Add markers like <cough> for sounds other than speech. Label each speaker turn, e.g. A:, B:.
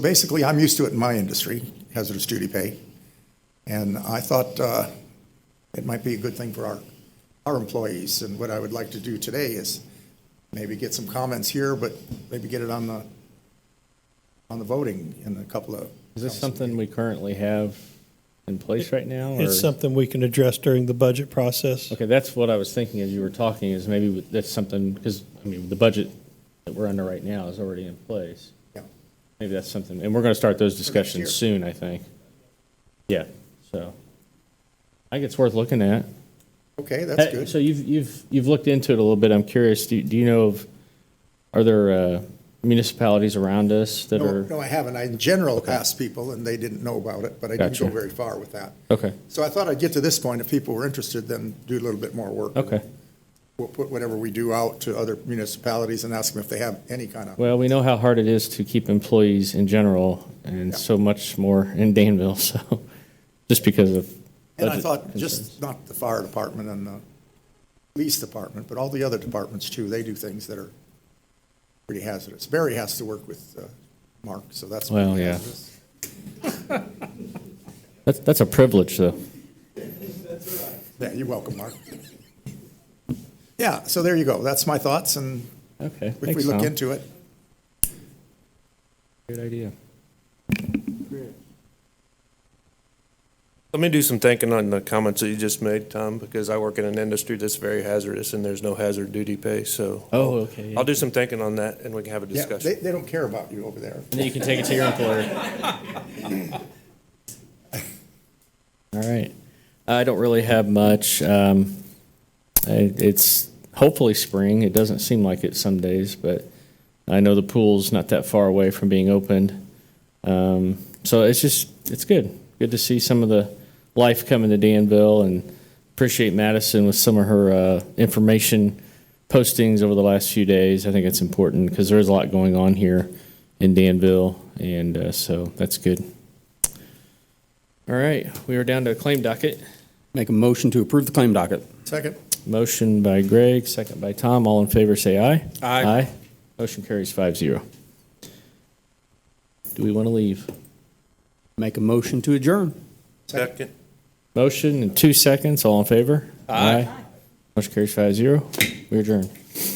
A: Basically, I'm used to it in my industry, hazardous duty pay. And I thought uh, it might be a good thing for our, our employees. And what I would like to do today is maybe get some comments here, but maybe get it on the, on the voting in a couple of.
B: Is this something we currently have in place right now? or-
C: It's something we can address during the budget process.
B: Okay, that's what I was thinking as you were talking, is maybe with- that's something, because, I mean, the budget that we're under right now is already in place.
A: Yeah.
B: Maybe that's something, and we're going to start those
A: year.
B: discussions soon, I think. Yeah, so, I think it's worth looking at.
A: Okay, that's
B: Hey,
A: good.
B: So you've, you've, you've looked into it a little bit, I'm curious, do, do you know of, are there uh, municipalities around us that
A: No,
B: are?
A: no, I haven't. I in general asked people and they didn't know about it, but I didn't
B: Gotcha.
A: go very far with that.
B: Okay,
A: So I thought I'd get to this point. If people were interested, then do a little bit more work.
B: okay.
A: We'll put whatever we do out to other municipalities and ask them if they have any kind of,
B: Well, we know how hard it is to keep employees in general and so much more in Danville, <laughs> so, just because of.
A: and I
B: budget
A: thought
B: concerns.
A: just not the fire department and the police department, but all the other departments too. They do things that are pretty hazardous. Barry has to work with uh, Mark, so that's
B: Well,
A: pretty
B: yeah.
A: hazardous.
B: That's, that's a privilege, though.
A: Yeah, you're welcome, Mark. Yeah, so there you go. That's my thoughts and
B: Okay.
A: if we
B: thanks,
A: look
B: Tom.
A: into it.
B: Great idea.
D: Let me do some thinking on the comments that you just made, Tom, because I work in an industry that's very hazardous and there's no hazard duty pay, so.
B: Oh, okay, yeah.
D: I'll do some thinking on that and we can have a
A: Yeah, they,
D: discussion.
A: they don't care about you over there.
B: And then you can take it to your employer. <laughs> All right. I don't really have much. Um, I, it's hopefully spring. It doesn't seem like it some days, but I know the pool's not that far away from being opened. Um, so it's just, it's good. Good to see some of the life coming to Danville and appreciate Madison with some of her uh, information postings over the last few days. I think it's important because there's a lot going on here in Danville, and uh, so that's good. All right, we are down to a claim docket.
E: Make a motion to approve the claim docket.
A: Second?
B: Motion by Greg, second by Tom. All in favor, say aye.
E: Aye.
B: Aye. Motion carries five zero. Do we want to leave?
E: Make a motion to adjourn.
D: Second,
B: Motion in two seconds. All in favor? Aye. Motion carries five zero. We adjourn.